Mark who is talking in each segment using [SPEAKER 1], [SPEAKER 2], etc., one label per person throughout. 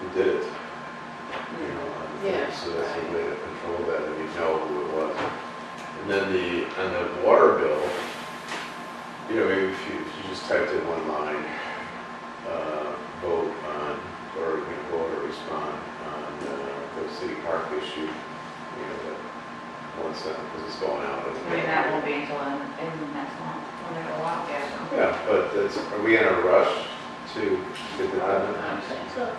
[SPEAKER 1] who did it, you know, on the thing.
[SPEAKER 2] Yeah,
[SPEAKER 1] so that's a
[SPEAKER 2] right.
[SPEAKER 1] way to control that, and you know who it was. And then the, on the water bill, you know, maybe if you, if you just typed in one line, uh, vote on, or, you know, vote or respond on, uh, the city park issue, you know, that one sentence, because it's going out.
[SPEAKER 2] I mean, that won't be until in, in the next month, when they go out, yeah.
[SPEAKER 1] Yeah, but that's, are we in a rush to get the,
[SPEAKER 3] I don't think so.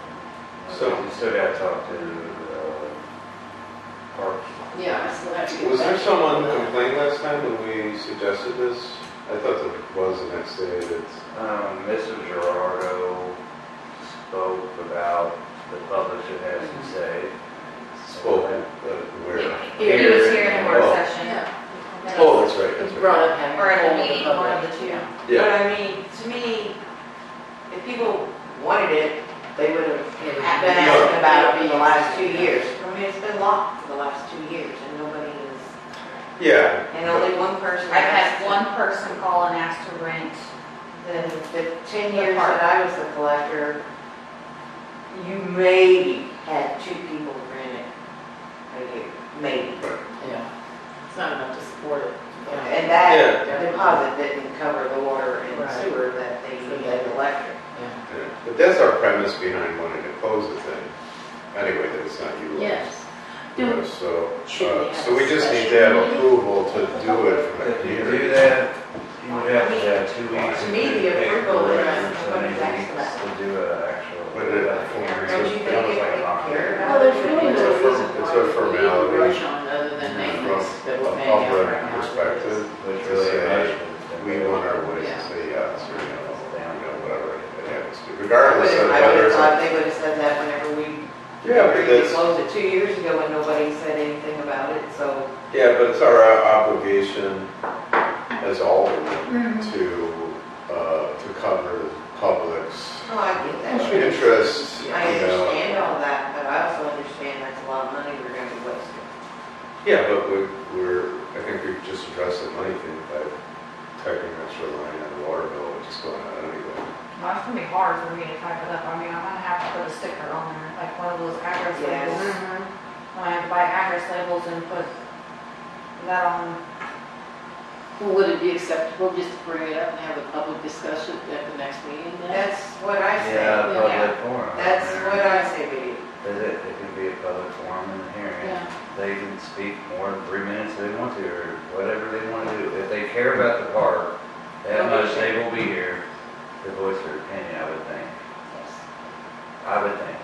[SPEAKER 4] So instead I talked to, uh, Parks.
[SPEAKER 2] Yeah, I still have to. get
[SPEAKER 1] was there
[SPEAKER 2] back.
[SPEAKER 1] someone who complained last time when we suggested this? I thought there was the next day that,
[SPEAKER 4] Um, Mrs. Gerardo spoke about the public should have to say.
[SPEAKER 1] spoke, but where?
[SPEAKER 2] He he was here in a work
[SPEAKER 1] Oh.
[SPEAKER 2] session,
[SPEAKER 1] Oh, that's right,
[SPEAKER 3] It's
[SPEAKER 1] that's
[SPEAKER 3] brought
[SPEAKER 1] right.
[SPEAKER 3] up having.
[SPEAKER 2] or at a
[SPEAKER 3] told the
[SPEAKER 2] meeting, one of
[SPEAKER 3] public.
[SPEAKER 2] the two.
[SPEAKER 1] Yeah,
[SPEAKER 3] But I mean, to me, if people wanted it, they would have been asking about it in the last two years. I mean, it's been locked for the last two years and nobody is,
[SPEAKER 1] yeah.
[SPEAKER 3] and only one person.
[SPEAKER 2] I've had
[SPEAKER 3] asked.
[SPEAKER 2] one person call and ask to rent
[SPEAKER 3] The,
[SPEAKER 2] the,
[SPEAKER 3] the ten
[SPEAKER 2] The
[SPEAKER 3] years
[SPEAKER 2] park.
[SPEAKER 3] that I was the collector, you maybe had two people rent it a year, maybe.
[SPEAKER 5] Yeah, it's not enough to support it.
[SPEAKER 3] And
[SPEAKER 5] Yeah.
[SPEAKER 3] that deposit didn't cover the water and
[SPEAKER 5] Right.
[SPEAKER 3] sewer that they needed electric.
[SPEAKER 1] yeah. But that's our premise behind wanting to close the thing. Anyway, that it's not you.
[SPEAKER 5] Yes.
[SPEAKER 1] Yeah, So,
[SPEAKER 5] Should we
[SPEAKER 1] uh,
[SPEAKER 5] have
[SPEAKER 1] so we
[SPEAKER 5] a
[SPEAKER 1] just need
[SPEAKER 5] special
[SPEAKER 1] to have
[SPEAKER 5] meeting?
[SPEAKER 1] approval to do it from
[SPEAKER 4] If you
[SPEAKER 1] here.
[SPEAKER 4] do that, you would have to have two weeks.
[SPEAKER 3] To me, the approval is
[SPEAKER 4] So many
[SPEAKER 3] what is
[SPEAKER 4] weeks
[SPEAKER 3] excellent.
[SPEAKER 4] To do an actual.
[SPEAKER 1] But it-
[SPEAKER 3] Don't you think
[SPEAKER 1] That was
[SPEAKER 3] it
[SPEAKER 1] like a lot.
[SPEAKER 3] would care?
[SPEAKER 5] Well, there's really
[SPEAKER 1] It's a
[SPEAKER 5] no
[SPEAKER 1] form-
[SPEAKER 5] reason
[SPEAKER 1] it's a
[SPEAKER 5] why we need
[SPEAKER 1] formality.
[SPEAKER 5] to rush on it other than maintenance that we're
[SPEAKER 1] From a
[SPEAKER 5] paying out
[SPEAKER 1] public
[SPEAKER 5] right now.
[SPEAKER 1] perspective,
[SPEAKER 4] Which
[SPEAKER 1] to
[SPEAKER 4] really.
[SPEAKER 1] say, we want our way to
[SPEAKER 5] Yeah.
[SPEAKER 1] say yes or no, you know, whatever it happens to, regardless of
[SPEAKER 3] I would
[SPEAKER 1] whether
[SPEAKER 3] have
[SPEAKER 1] it's.
[SPEAKER 3] thought
[SPEAKER 1] a-
[SPEAKER 3] they would have said that whenever we,
[SPEAKER 1] Yeah, but
[SPEAKER 3] we
[SPEAKER 1] that's,
[SPEAKER 3] closed it two years ago and nobody said anything about it, so.
[SPEAKER 1] yeah, but it's our obligation as aldermen
[SPEAKER 2] Mm-hmm.
[SPEAKER 1] to, uh, to cover the public's
[SPEAKER 3] Oh, I get
[SPEAKER 1] uh,
[SPEAKER 3] that.
[SPEAKER 1] interest, you
[SPEAKER 3] I
[SPEAKER 1] know.
[SPEAKER 3] understand all that, but I also understand that's a lot of money we're gonna be wasting.
[SPEAKER 1] Yeah, but we, we're, I think we've just addressed the money thing by typing an extra line on the water bill, which is going out anyway.
[SPEAKER 2] Well, it's gonna be hard for me to type it up, I mean, I'm gonna have to put a sticker on there, like one of those address
[SPEAKER 3] Yes.
[SPEAKER 2] labels.
[SPEAKER 1] Mm-hmm.
[SPEAKER 2] When I have to buy address labels and put that on,
[SPEAKER 5] Well, Would it be acceptable just to bring it up and have a public discussion at the next meeting then?
[SPEAKER 3] That's what I say.
[SPEAKER 4] Yeah, public forum.
[SPEAKER 3] That's what I say, Biddy.
[SPEAKER 4] Is it, it could be a public forum and a hearing.
[SPEAKER 5] Yeah.
[SPEAKER 4] They can speak more than three minutes if they want to, or whatever they want to do. If they care about the park, that much, they will be here to voice their opinion, I would think. I would think.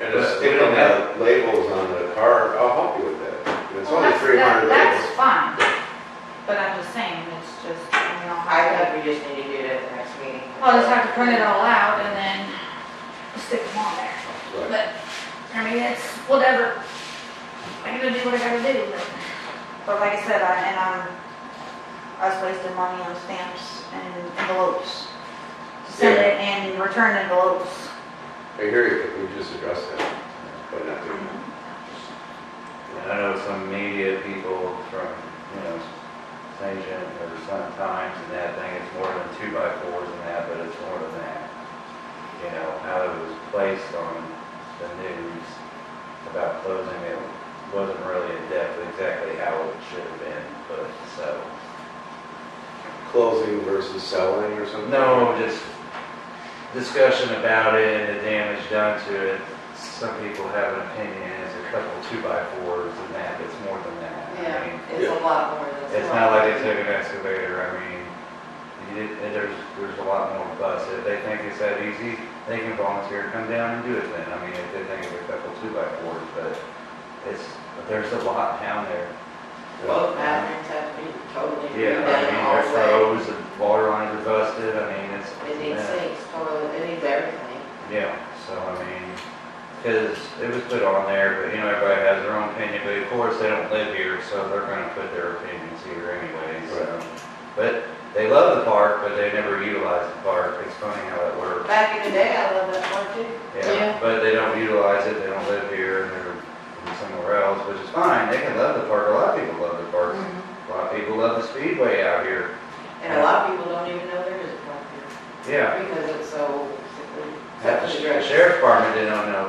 [SPEAKER 1] And
[SPEAKER 4] But
[SPEAKER 1] just
[SPEAKER 4] we
[SPEAKER 1] sticking
[SPEAKER 4] don't
[SPEAKER 1] the labels on the car, I'll help you with that. It's
[SPEAKER 2] well,
[SPEAKER 1] only
[SPEAKER 2] that's,
[SPEAKER 1] three
[SPEAKER 2] that-
[SPEAKER 1] hundred
[SPEAKER 2] that's
[SPEAKER 1] labels.
[SPEAKER 2] fine. But I'm just saying, it's just, you know,
[SPEAKER 3] I
[SPEAKER 2] I,
[SPEAKER 3] think we just need to do it at the next meeting.
[SPEAKER 2] I'll just have to print it all out and then stick them on there.
[SPEAKER 1] Right.
[SPEAKER 2] But, I mean, it's whatever, I gotta do what I gotta do, but, but like I said, I, and I'm, I was wasting money on stamps and envelopes. To Send it and return envelopes.
[SPEAKER 1] I hear you, we just addressed that, but not doing that.
[SPEAKER 2] Mm-hmm.
[SPEAKER 4] And I know some media people from, you know, St. John or Sun Times and that thing, it's more than two by fours and that, but it's more than that. You know, how it was placed on the news about closing, it wasn't really in depth exactly how it should have been, but so.
[SPEAKER 1] Closing versus selling or something?
[SPEAKER 4] No, just discussion about it and the damage done to it. Some people have an opinion, it's a couple two by fours and that, it's more than that. I
[SPEAKER 3] Yeah,
[SPEAKER 4] mean,
[SPEAKER 3] it's a lot more than.
[SPEAKER 4] It's not like they took an excavator, I mean, you did- and there's, there's a lot more to us. If they think it's that easy, they can volunteer, come down and do it then. I mean, if they think it's a couple two by fours, but it's, but there's a lot down there.
[SPEAKER 3] Both bathrooms have to be totally
[SPEAKER 4] Yeah, I mean,
[SPEAKER 3] redone all
[SPEAKER 4] there's roads and water lines are busted, I mean, it's.
[SPEAKER 3] the way. It needs
[SPEAKER 4] yeah.
[SPEAKER 3] sinks, toilet, it needs everything.
[SPEAKER 4] Yeah, so I mean, because it was put on there, but you know, everybody has their own opinion, but of course, they don't live here, so they're gonna put their opinions here anyway, so. But they love the park, but they never utilize the park, it's funny how that works.
[SPEAKER 3] Back in the day, I loved that part too.
[SPEAKER 5] Yeah.
[SPEAKER 4] Yeah, but they don't utilize it, they don't live here, and they're from somewhere else, which is fine, they can love the park, a lot of people love the park. A lot of people love the speedway out here,
[SPEAKER 3] And a lot of people don't even know there is a park here
[SPEAKER 4] yeah.
[SPEAKER 3] because it's so. secluded.
[SPEAKER 4] The sheriff's department didn't know